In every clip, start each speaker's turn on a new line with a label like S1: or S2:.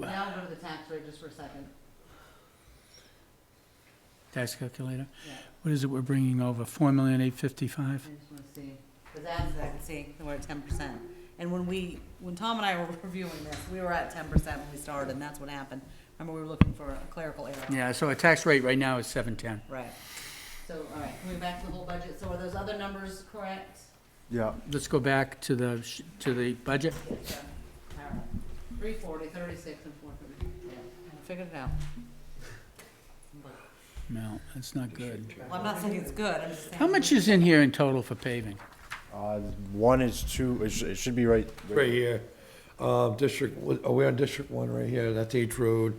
S1: Now go to the tax rate just for a second.
S2: tax calculator.
S1: Yeah,
S2: What is it we're bringing over? Four million eight fifty-five?
S1: I just want to see, because that's, I can see, we're at ten percent. And when we, when Tom and I were reviewing this, we were at ten percent when we started, and that's what happened. Remember, we were looking for a clerical error.
S2: Yeah, so our tax rate right now is seven ten.
S1: Right. So, all right, coming back to the whole budget, so are those other numbers correct?
S3: Yeah,
S2: Let's go back to the, sh- to the budget.
S1: Yes, yeah. All right. Three forty, thirty-six, and four thirty. Yeah, I figured it out.
S2: No, that's not good.
S1: Well, I'm not saying it's good, I'm just saying.
S2: How much is in here in total for paving?
S3: uh, one is two, it should, it should be right.
S4: Right here, um, district, oh, we're on district one right here, that's H Road,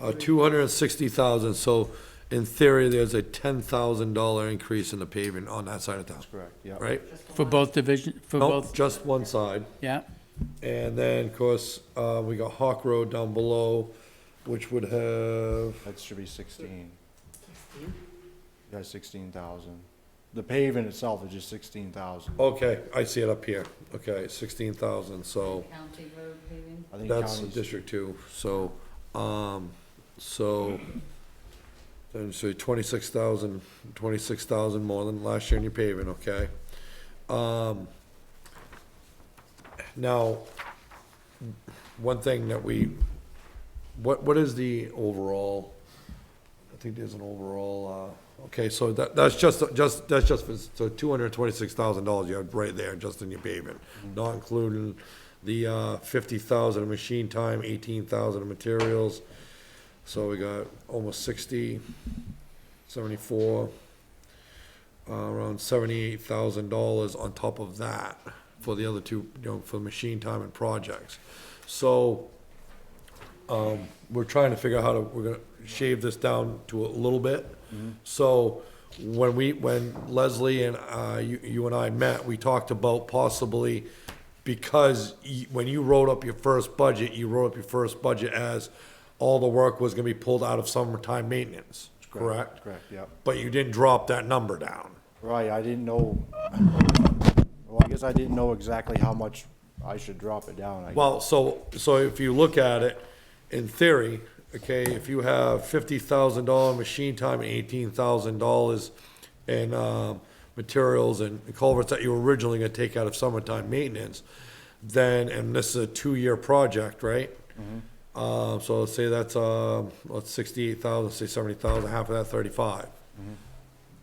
S4: uh, two hundred and sixty thousand, so in theory, there's a ten thousand dollar increase in the paving on that side of town,
S3: Correct, yeah.
S4: right?
S2: For both division, for
S4: Nope,
S2: both,
S4: just one side,
S2: yeah?
S4: and then, of course, uh, we got Hawk Road down below, which would have,
S3: That should be sixteen. Yeah, sixteen thousand. The paving itself is just sixteen thousand.
S4: okay, I see it up here, okay, sixteen thousand, so.
S1: County road paving?
S3: I think
S4: That's
S3: counties-
S4: District Two, so, um, so, then, so twenty-six thousand, twenty-six thousand more than last year in your paving, okay? Um, now, one thing that we, what, what is the overall, I think there's an overall, uh, okay, so that, that's just, just, that's just, for- so two hundred and twenty-six thousand dollars you have right there, just in your paving, not including the, uh, fifty thousand of machine time, eighteen thousand of materials. So we got almost sixty, seventy-four, uh, around seventy-eight thousand dollars on top of that for the other two, you know, for machine time and projects. So, um, we're trying to figure out how to, we're gonna shave this down to a little bit. So when we, when Leslie and, uh, you, you and I met, we talked about possibly, because y when you wrote up your first budget, you wrote up your first budget as all the work was gonna be pulled out of summertime maintenance, correct?
S3: Correct, yep.
S4: But you didn't drop that number down.
S3: Right, I didn't know, well, I guess I didn't know exactly how much I should drop it down. I-
S4: Well, so, so if you look at it, in theory, okay, if you have fifty thousand dollar machine time and eighteen thousand dollars in, um, materials and culverts that you were originally gonna take out of summertime maintenance, then, and this is a two-year project, right?
S3: Mm-hmm.
S4: Uh, so let's say that's, um, let's sixty-eight thousand, say seventy thousand, half of that thirty-five.
S3: Mm-hmm.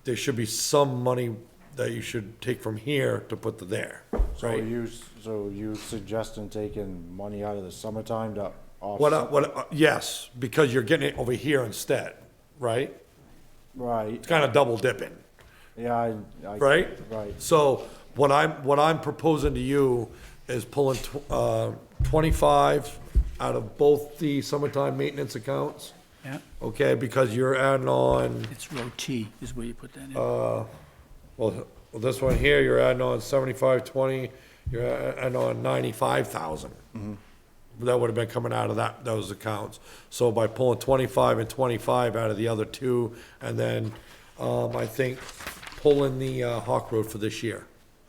S4: There should be some money that you should take from here to put to there,
S3: So
S4: right?
S3: you, s- so you suggesting taking money out of the summertime to
S4: What, I-
S3: offset?
S4: what, I- yes, because you're getting it over here instead, right?
S3: Right,
S4: It's kind of double dipping,
S3: yeah, I. I-
S4: right?
S3: Right,
S4: So what I'm, what I'm proposing to you is pulling, tw- uh, twenty-five out of both the summertime maintenance accounts,
S2: Yeah,
S4: okay? Because you're adding on,
S2: it's row T is where you put that in.
S4: well, this one here, you're adding on seventy-five, twenty, you're a- adding on ninety-five thousand. That would have been coming out of that, those accounts. So by pulling twenty-five and twenty-five out of the other two, and then, um, I think pulling the, uh, Hawk Road for this year.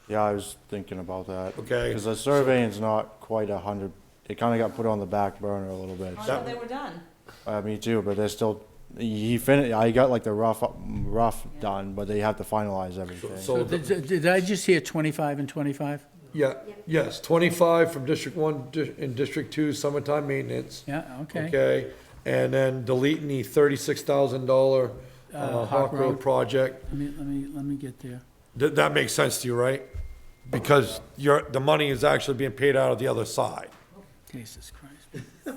S3: yeah, I was thinking about that.
S4: Okay.
S3: Because the surveying's not quite a hundred, it kinda got put on the back burner a little bit.
S1: Oh, no, they were done.
S3: Uh, me too, but they're still, he finished, I got like the rough, rough done, but they have to finalize everything.
S2: So
S4: So, the-
S2: Did did I just hear twenty-five and twenty-five?
S4: yeah, yes, twenty-five from District One, Di- and District Two, summertime maintenance.
S2: Yeah, okay.
S4: Okay, and then deleting the thirty-six thousand dollar,
S2: Uh,
S4: uh,
S2: Hawk
S4: Hawk
S2: Road.
S4: Road project.
S2: Let me, let me, let me get there.
S4: That, that makes sense to you, right? Because your, the money is actually being paid out of the other side.
S2: Jesus Christ. Help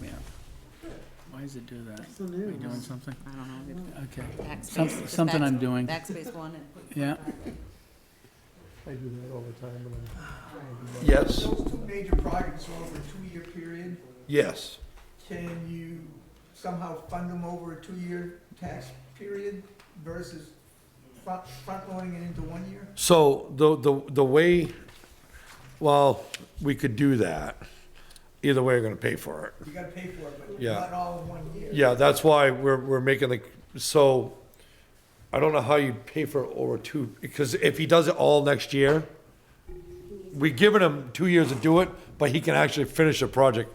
S2: me out. Why does it do that? Are we doing something?
S1: I don't know.
S2: Okay,
S1: Backspace,
S2: Some-
S1: just
S2: something I'm
S1: backspace-
S2: doing.
S1: Backspace one and put
S2: yeah.
S5: I do that all the time when I'm
S4: Yes,
S5: Those two major projects are over a two-year period.
S4: yes.
S5: Can you somehow fund them over a two-year tax period versus front, front-loading it into one year?
S4: So the, the, the way, well, we could do that. Either way, we're gonna pay for it.
S5: You gotta pay for it, but
S4: Yeah.
S5: not all in one year.
S4: Yeah, that's why we're, we're making the, so, I don't know how you pay for over two, because if he does it all next year, we have given him two years to do it, but he can actually finish the project